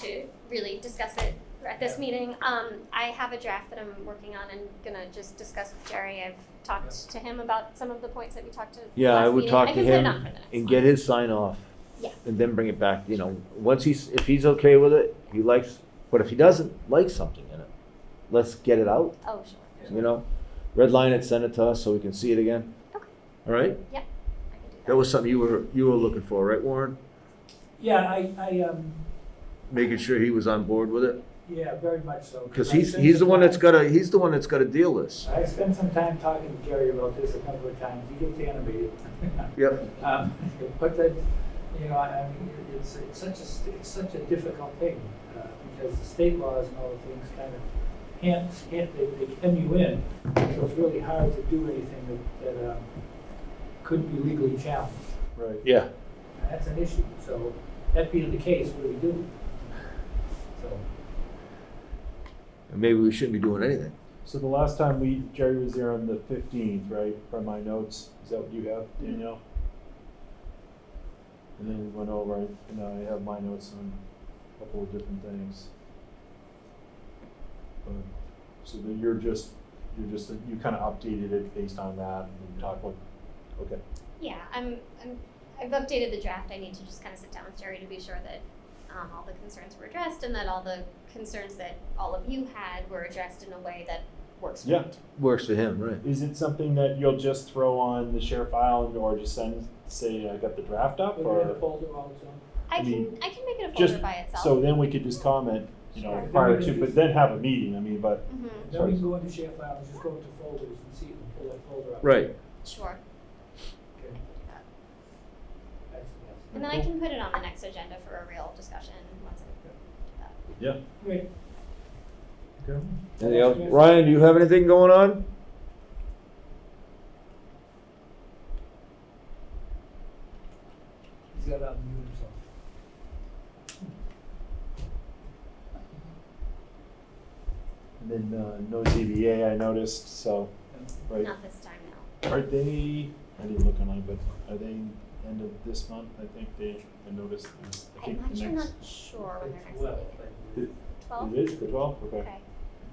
to really discuss it at this meeting. Um, I have a draft that I'm working on and gonna just discuss with Jerry. I've talked to him about some of the points that we talked to. Yeah, I last would meeting. talk I to can put it him on for the next and one. get his sign off. Yeah. And then bring it back, you know, once he's, if he's okay with it, he likes, but if he doesn't like something in it, let's get it out, Oh, sure. you know? Redline it, send it to us so we can see it again. Okay. All I right? can do That was something you were, you were looking for, right, Warren? Yeah, I, I, um, Making sure he was on board with it? yeah, very much so. Because I he's, spent he's the some one that's time- gotta, he's the one that's gotta deal this. I spent some time talking to Jerry about this a couple of times, he gets animated. Yep, Um, But that, you know, I I mean, it- it's, it's such a, st- it's such a difficult thing, uh, because the state laws and all the things kind of can't, can't, they, they hem you in. So it's really hard to do anything that, that, um, couldn't be legally challenged. Right. yeah. And That's an issue, so that being the case, what do we do? So. And maybe we shouldn't be doing anything. So the last time we, Jerry was there on the fifteenth, right, from my notes, is that what you have, Danielle? And then we went over, it, and I have my notes on a couple of different things. But- So then you're just, you're just, you kind of updated it based on that, and talk about, okay, Yeah, I'm, I'm, I've updated the draft. I need to just kind of sit down with Jerry to be sure that um, all the concerns were addressed and that all the concerns that all of you had were addressed in a way that works for you. Yeah. Works for him, right? is it something that you'll just throw on the share file, or just send, say, I got the draft Put up, it in the or? folder on its own. I I can, mean, I can make it a folder Just, by itself. so then we could just comment, you know, Sure. prior to, but then have a meeting, I mean, but hmm Then we can go into share file and just go into folders and see if we can pull that folder up. Right. Sure. I Okay, can do that. that's- And then I can put it on the next agenda for a real discussion once I Great. Okay. Anything else? Ryan, do you have anything going on? He's got to unmute himself. And then uh, no ZBA, I noticed, so, right, Not this time, no. are they, I didn't look online, but are they end of this month, I think they, I noticed, is- I I'm think the actually next. not sure when their It's next well, meeting is. Twelve? but- It it is, the twelfth, okay, Okay.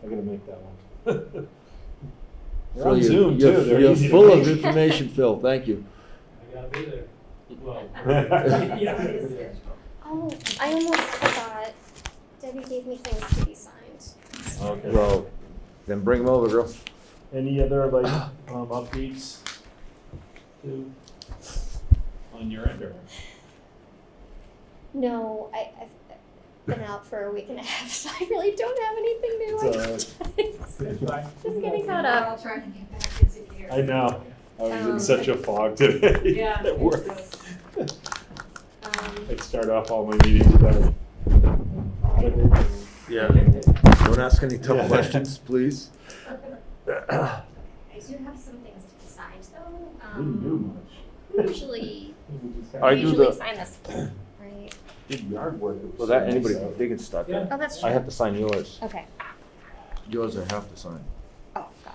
I gotta make that one. They're So on you're- Zoom you're- too, they're You're easy to full of reach. information, Phil, thank you. I gotta be there. Well. Yeah. Yeah. Oh, I almost forgot. Debbie gave me things to be signed. Okay, Well, then bring them over, girl. any other like, um, updates to, on your end, or? No, I, I've been out for a week and a half, so I really don't have anything new. I It's apologize. That's fine. Just getting caught We're up. all trying to get back into gear. I know, I was in Um, such a fog today. Yeah. At work, Um, I start off all my meetings with that. Yeah. Don't ask any tough Yeah. questions, please. I do have some things to be signed though. Didn't do Um, much. usually, I I do usually the- sign this, right? Did yard work. Well, that, anybody, they can stop Yeah. that. Oh, that's I true. have to sign yours. Okay. Yours I have to sign. Oh, God.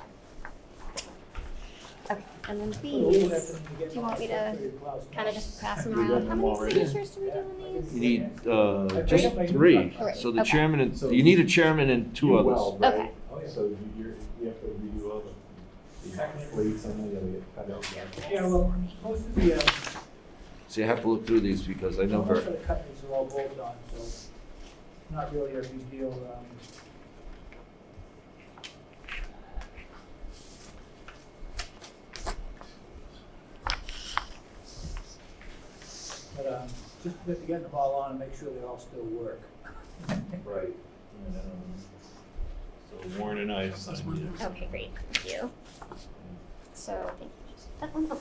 Okay, and then We'll do that these, when we get do you want me back to the class. kind of just pass them We got around. How them many already. signatures do we do on these? You need, uh, Okay. just three. So the Okay. chairman and, you need a chairman and two others. Okay. Oh, yeah. So you, you're, you have to redo all the the plates, I know you gotta get cut out. Yeah, well, most of the, uh, So you have to look through these because I know most of her. the companies are all bolted on, so it's not really a big deal, um, But um, just to get them all on and make sure they all still work. Right. And, um, So Warren and I signed it. Okay, great, thank you. So, thank you. That one, oh,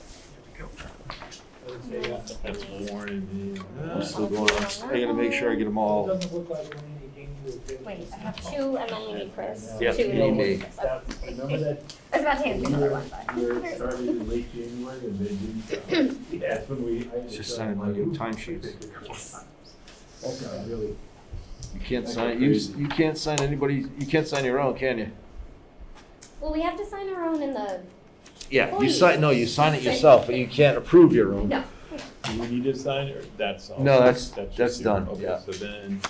I would say, uh, That's Warren and me. I'm still going, I'm still- I gotta make sure I get them It all. doesn't look like we're in any danger of doing wait, this. I have two and then we need Chris. Yeah, Two you and then need we me. Chris. That- Okay. Remember that I was about to hand you another one, We were but. started in late January and they didn't. uh, That's when we. I- Just sign all your timesheets. Yes. That's not really. You can't sign, you, you can't sign anybody, you can't sign your own, can you? Well, we have to sign our own in the, Yeah, you sign, no, you sign it yourself, but you can't approve your own. no, Do we need to sign or that's all? No, that's- just that's you. done, Okay, yeah. So then,